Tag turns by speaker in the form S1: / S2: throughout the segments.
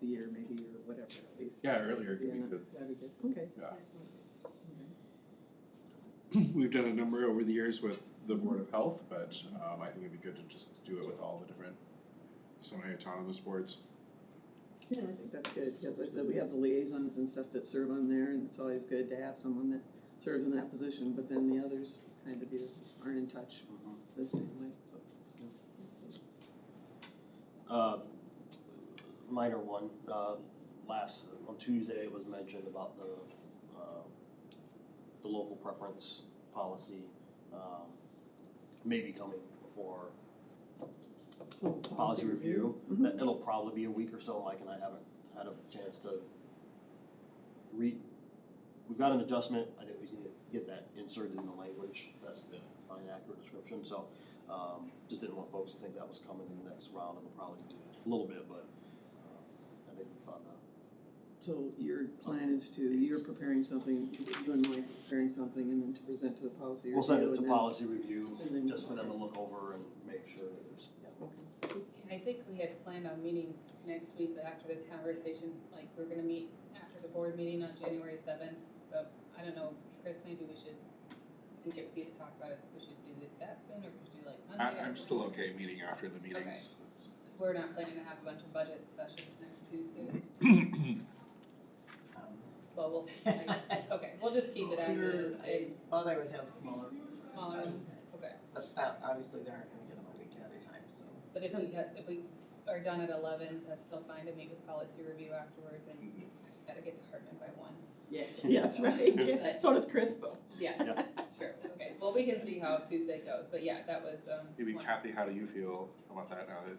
S1: the year maybe or whatever at least.
S2: Yeah, earlier could be
S1: Yeah,
S2: good.
S1: That'd be good, okay.
S2: We've done a number over the years with the Board of Health, but um, I think it'd be good to just do it with all the different semi-autonomous boards.
S1: Yeah, I think that's good, because I said we have the liaisons and stuff that serve on there, and it's always good to have someone that serves in that position, but then the others kind of you aren't in touch the same way. so.
S3: Uh, Minor one, uh, last, on Tuesday it was mentioned about the, uh, the local preference policy, um, may be coming for policy review. That- It'll probably be a week or so, Mike and I haven't had a chance to read, we've got an adjustment, I think we just need to get that inserted in the language, that's not an accurate description, so, um, just didn't want folks to think that was coming in the next round, it'll probably be a little bit, but, um, I think we found that.
S1: So your plan is to, you're preparing something, you and Mike are preparing something, and then to present to the policy review.
S3: We'll send it
S1: and
S3: to
S1: then-
S3: policy review,
S1: and then-
S3: just for them to look over and make sure that there's, yeah.
S4: And I think we had planned on meeting next week, but after this conversation, like, we're gonna meet after the board meeting on January seventh, but I don't know, Chris, maybe we should, I think it would be to talk about it, we should do it that soon, or could you like
S2: I,
S4: Monday?
S2: I'm still okay meeting after the meetings.
S4: We're not planning to have a bunch of budget sessions next Tuesday. Well, we'll, see, I guess, okay, we'll just keep it as is,
S5: I
S4: I,
S5: thought I would have smaller,
S4: smaller ones, okay,
S5: but
S1: uh,
S5: that, obviously they aren't gonna get them a week at a time, so.
S4: but if we get, if we are done at eleven, that's still fine to meet with policy review afterwards, and I just gotta get to Hartman by one.
S1: Yeah, yeah, that's right, yeah, so does Chris though.
S4: Yeah, sure, okay, well, we can see how Tuesday goes, but yeah, that was, um.
S2: Maybe
S4: one-
S2: Kathy, how do you feel about that now that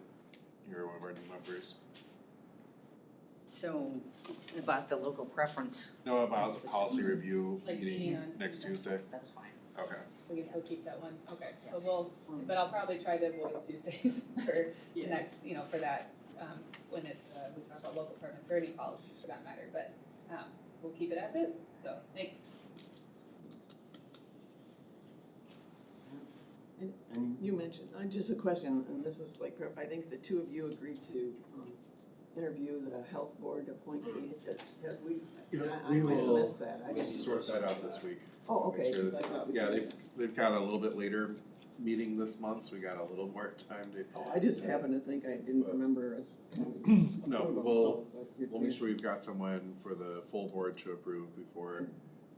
S2: you're one of our new members?
S6: So about the local preference,
S2: No, about the policy review
S4: Like meeting
S2: meeting
S4: on
S2: next Tuesday?
S4: Tuesday?
S6: that's fine.
S2: Okay.
S4: We can still keep that one, okay, so
S6: Yes.
S4: we'll, but I'll probably try to avoid Tuesdays for the
S5: Yeah.
S4: next, you know, for that, um, when it's, uh, we talk about local permits or any policies for that matter, but, um, we'll keep it as is, so, thanks.
S3: And
S1: You mentioned, uh, just a question, and this is like, I think the two of you agreed to um, interview the health board appointee. That- that we, I I might have missed that. I
S2: We'll
S1: didn't-
S2: sort that out this week.
S1: Oh, okay,
S2: Make sure
S1: 'cause I
S2: that-
S1: thought we.
S2: Yeah, they've, they've got a little bit later meeting this month, so we got a little more time to.
S1: Oh, I just happened to think I didn't remember us.
S2: No,
S1: approve them,
S2: we'll,
S1: so it's like-
S2: we'll make sure we've got someone for the full board to approve before,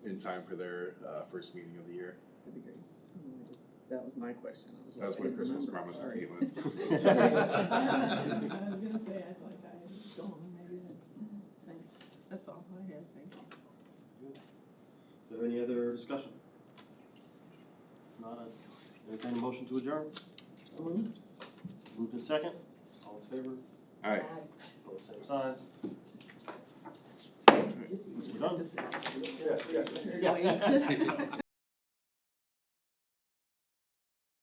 S2: in time for their, uh, first meeting of the year.
S1: That'd be great. Oh, I just- That was my question. I was just-
S2: That's
S1: I
S2: my
S1: didn't
S2: Christmas
S1: remember.
S2: promise to
S1: Sorry.
S2: Caitlin.
S1: I was gonna say, I thought I was going, maybe that's, thanks, that's all I have, thank you.
S3: Is there any other discussion? If Not a, entertain a motion to adjourn? Moved in second, all in favor,
S2: All right.
S3: opposed, same sign. We're done.
S1: Just-
S3: Yeah, yeah.
S1: Apparently.